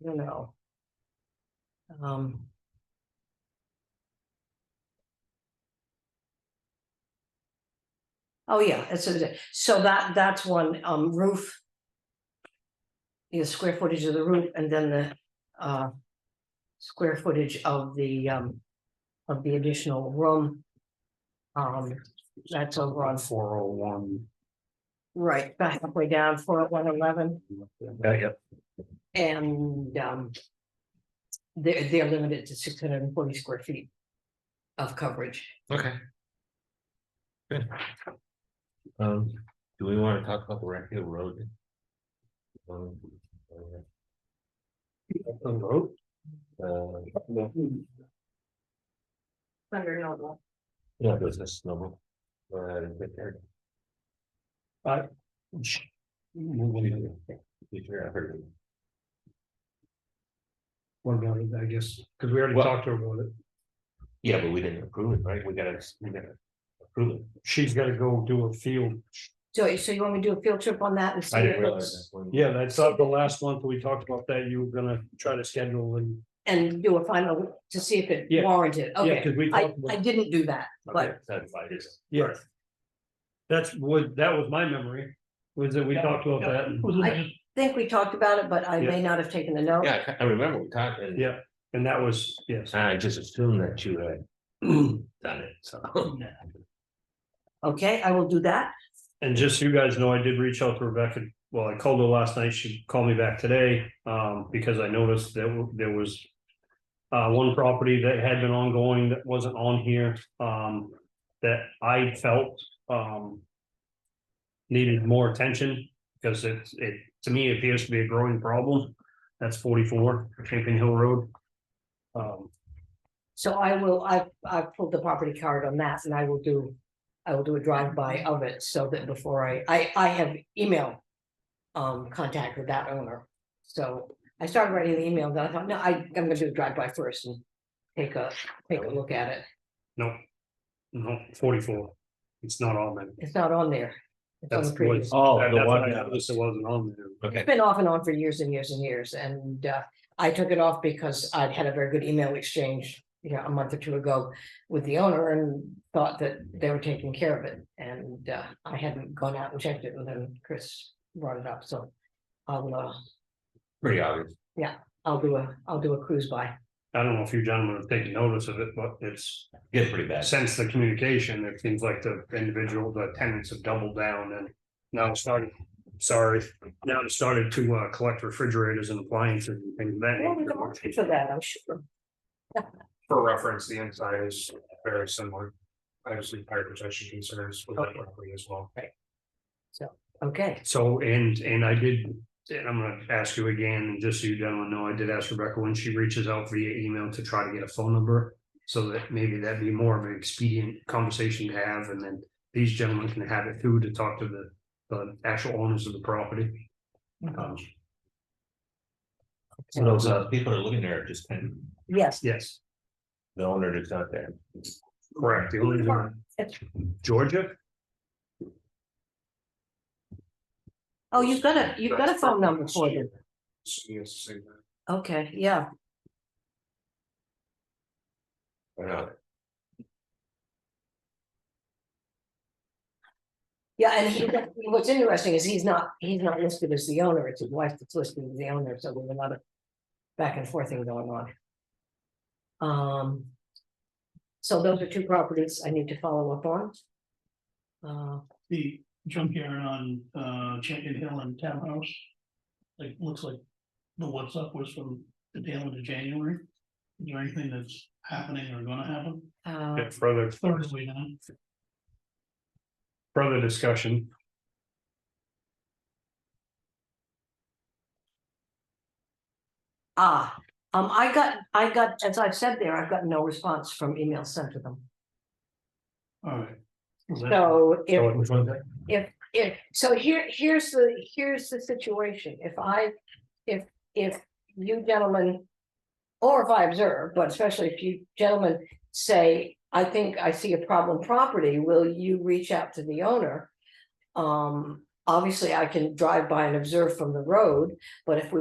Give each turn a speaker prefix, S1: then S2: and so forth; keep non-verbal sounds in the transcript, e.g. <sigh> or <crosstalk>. S1: you know. Um. Oh, yeah, it's, a- so that, that's one, um, roof. The square footage of the roof and then the, uh. Square footage of the, um, of the additional room. Um, that's over on,
S2: Four oh one.
S1: right, about halfway down, four, oh one eleven. And um. They're they're limited to six hundred and forty square feet. Of coverage.
S3: Okay. Good. Um, do we wanna talk about the Rec Hill Road? Um, uh,
S1: Thunder Noble.
S3: yeah, business number. Uh, get there. Uh, Get there, I heard it.
S2: What about it, I guess, because we already
S3: Well-
S2: talked to her about it.
S3: Yeah, but we didn't approve it, right? We gotta, we gotta approve it.
S2: She's gotta go do a field.
S1: So so you want me to do a field trip on that and see?
S3: I didn't
S1: it?
S3: realize that.
S2: Yeah, that's not the last month we talked about that. You were gonna try to schedule and.
S1: And do a final to see if it
S2: Yeah.
S1: warranted,
S2: Yeah,
S1: okay,
S2: because we
S1: I
S2: talked
S1: I
S2: about.
S1: didn't do that,
S3: Okay,
S1: but
S3: that's why I just-
S2: Yes. That's what, that was my memory, was that we talked about that.
S1: I-
S2: and-
S1: think we talked about it, but I may not have taken the note.
S3: Yeah, I ca- I remember we talked and.
S2: Yeah, and that was, yes.
S3: I just assumed that you had <clears throat> done it, so.
S1: Okay, I will do that,
S2: And just so you guys know, I did reach out to Rebecca. Well, I called her last night. She called me back today, um, because I noticed that w- there was. Uh, one property that had been ongoing that wasn't on here, um, that I felt, um. Needed more attention because it's, it, to me, appears to be a growing problem. That's forty-four, Champion Hill Road. Um,
S1: so I will, I I pulled the property card on that and I will do. I will do a drive-by of it so that before I, I I have email. Um, contact with that owner, so I started writing the email, then I thought, no, I I'm gonna do a drive-by first and. Take a, take a look at it,
S2: no, no, forty-four. It's not on there.
S1: it's not on there. It's on the
S2: That's the one.
S1: previous.
S3: Oh,
S2: That-
S3: the
S2: That's what I
S3: one-
S2: noticed. It wasn't on there.
S3: Okay,
S1: It's been off and on for years and years and years, and uh, I took it off because I'd had a very good email exchange. You know, a month or two ago with the owner and thought that they were taking care of it, and uh, I hadn't gone out and checked it, and then Chris brought it up, so. I'll, uh,
S3: pretty obvious.
S1: I'll do a, I'll do a cruise by,
S2: I don't know if you gentlemen have taken notice of it, but it's
S3: Get pretty bad.
S2: since the communication, it seems like the individual, the tenants have doubled down and. Now it's started, sorry, now it started to uh collect refrigerators and appliances and things of that.
S1: well, there's an
S2: nature.
S1: option for that, I'm sure,
S2: For reference, the inside is very similar. Obviously, fire protection concerns with
S1: that
S2: property as well.
S1: okay.
S2: So, and, and I did, and I'm gonna ask you again, just so you gentlemen know, I did ask Rebecca when she reaches out via email to try to get a phone number. So that maybe that'd be more of an expedient conversation to have, and then these gentlemen can have it through to talk to the, the actual owners of the property.
S1: Mm-hmm.
S2: Um,
S3: So those uh, people that are living there, are just kind of,
S1: Yes,
S2: yes,
S3: the owner is not there.
S2: correct. The owners are- Georgia?
S1: oh, you've got a, you've got a phone number for them,
S2: Yes.
S1: okay, yeah,
S3: Or not.
S1: yeah, and he, <laughs> what's interesting is he's not, he's not listed as the owner, it's his wife that's listed as the owner, so there's a lot of. Back and forth thing going on. Um. So those are two properties I need to follow up on. Uh,
S4: the junkyard on uh Champion Hill and Townhouse. Like, looks like the what's up was from the tail end of January. Is there anything that's happening or gonna happen?
S1: uh,
S2: Further,
S4: Thursday now,
S2: further discussion.
S1: ah, um, I got, I got, as I've said there, I've got no response from email sent to them,
S4: all right.
S1: so if.
S2: So which one's that?
S1: if, so here, here's the, here's the situation, if I, if, if you gentlemen. Or if I observe, but especially if you gentlemen say, I think I see a problem property, will you reach out to the owner? Um, obviously, I can drive by and observe from the road, but if we